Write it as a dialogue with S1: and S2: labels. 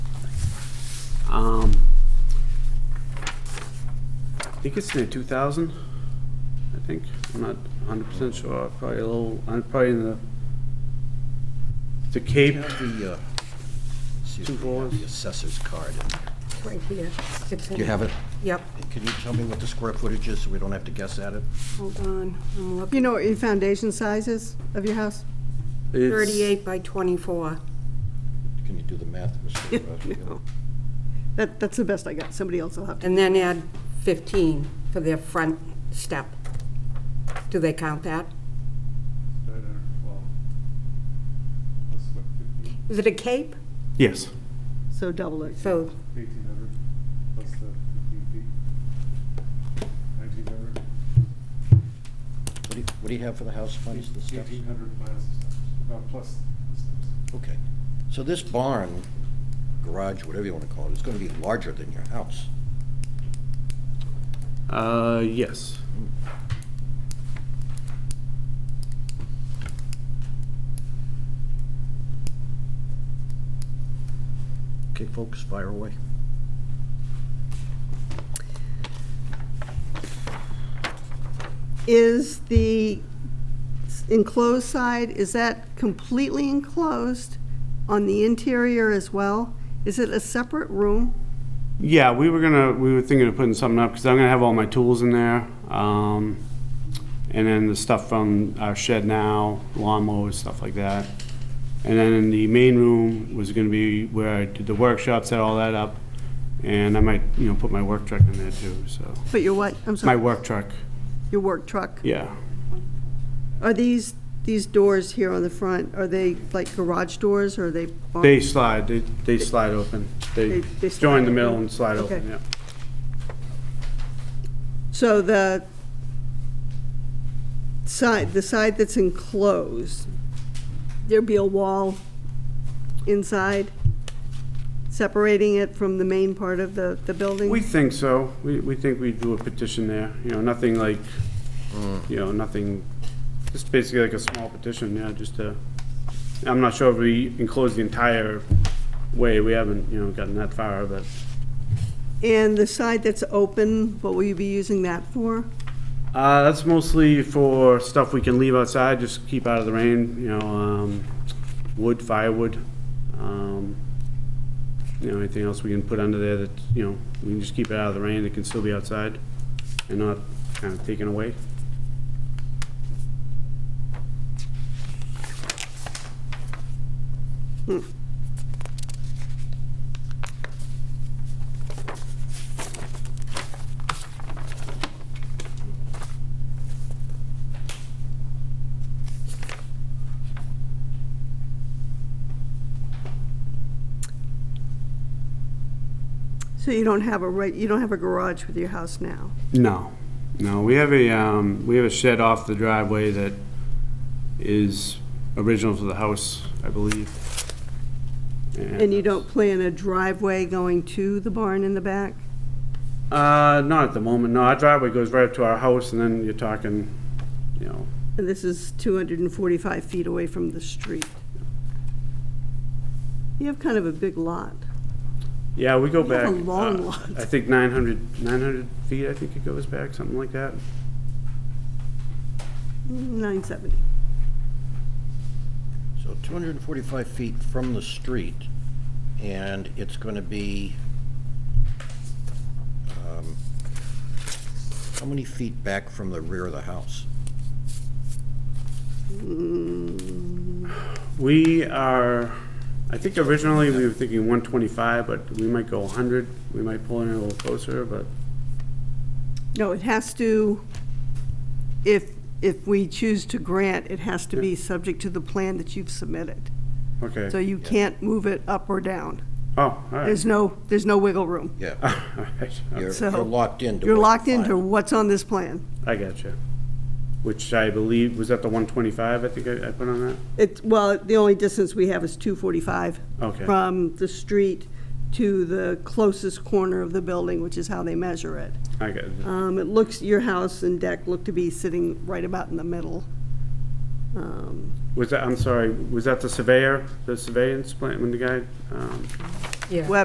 S1: Um, I think it's near two thousand, I think, I'm not hundred percent sure, probably a little, I'm probably in the, the Cape,
S2: You have the, uh, excuse
S1: Two
S2: me, you have
S1: drawers.
S2: the assessor's card.
S3: Right here. It's in-
S2: Do you have it?
S3: Yep,
S2: Can you tell me what the square footage is, so we don't have to guess at it?
S3: hold on, I'm
S4: You
S3: looking.
S4: know what your foundation size is of your house?
S1: it's.
S3: Thirty-eight by twenty-four.
S2: Can you do the math, Mr. Rossi?
S4: That, that's the best I got. Somebody else will have to.
S3: And then add fifteen for their front step. Do they count that? Is it a cape?
S1: Yes.
S4: So double it.
S3: So,
S5: Eighteen hundred plus the fifteen feet. Nineteen hundred.
S2: What do you- what do you have for the house funds, the steps?
S5: Eighteen hundred minus the steps, uh, plus the steps.
S2: Okay, so this barn, garage, whatever you want to call it, is going to be larger than your house.
S1: Uh, yes.
S2: Okay, folks, fire away.
S4: Is the enclosed side, is that completely enclosed on the interior as well? Is it a separate room?
S1: Yeah, we were gonna, we were thinking of putting something up, because I'm gonna have all my tools in there. Um, and then the stuff from our shed now, lawnmowers, stuff like that. And then in the main room was gonna be where I did the workshop, set all that up. And I might, you know, put my work truck in there too, so.
S4: But your what? I'm
S1: My
S4: sorry.
S1: work truck,
S4: Your work truck?
S1: yeah.
S4: Are these, these doors here on the front, are they like garage doors or are they? barn-
S1: They slide, they, they slide open. They
S4: They-
S1: join
S4: they slide
S1: the middle
S4: open?
S1: and slide
S4: Okay.
S1: open, yeah.
S4: So the side, the side that's enclosed, there'd be a wall inside separating it from the main part of the, the building?
S1: We think so. We, we think we do a petition there, you know, nothing like, you know, nothing, just basically like a small petition, yeah, just to, I'm not sure if we enclose the entire way. We haven't, you know, gotten that far, but
S4: And the side that's open, what will you be using that for?
S1: Uh, that's mostly for stuff we can leave outside, just keep out of the rain, you know, um, wood, firewood. Um, you know, anything else we can put under there that, you know, we can just keep it out of the rain, it can still be outside and not kind of taken away.
S4: So you don't have a right, you don't have a garage with your house now?
S1: No, no, we have a, um, we have a shed off the driveway that is original to the house, I believe.
S4: And you don't plan a driveway going to the barn in the back?
S1: Uh, not at the moment, no, our driveway goes right up to our house, and then you're talking, you know,
S4: And this is 245 feet away from the street. You have kind of a big lot.
S1: yeah, we go
S4: You have
S1: back.
S4: a long
S1: uh,
S4: lot.
S1: I think 900 900 feet, I think it goes back, something like that.
S4: 970.
S2: So 245 feet from the street, and it's going to be, um, how many feet back from the rear of the house?
S4: Mm,
S1: We are, I think originally we were thinking 125, but we might go 100, we might pull in a little closer, but,
S4: No, it has to, if, if we choose to grant, it has to be subject to the plan that you've submitted.
S1: okay.
S4: So you can't move it up or down.
S1: Oh, all right.
S4: There's no, there's no wiggle room.
S2: Yeah,
S1: All right.
S2: you're
S4: So,
S2: you're locked into.
S4: You're
S2: what-
S4: locked into
S2: fine.
S4: what's on this plan.
S1: I got you. Which I believe, was that the 125, I think I I put on that?
S4: It's, well, the only distance we have is 245.
S1: Okay.
S4: From the street to the closest corner of the building, which is how they measure it.
S1: I got it.
S4: Um, It looks, your house and deck look to be sitting right about in the middle. Um,
S1: Was that, I'm sorry, was that the surveyor, the surveillance plan, when the guy, um,
S3: yeah.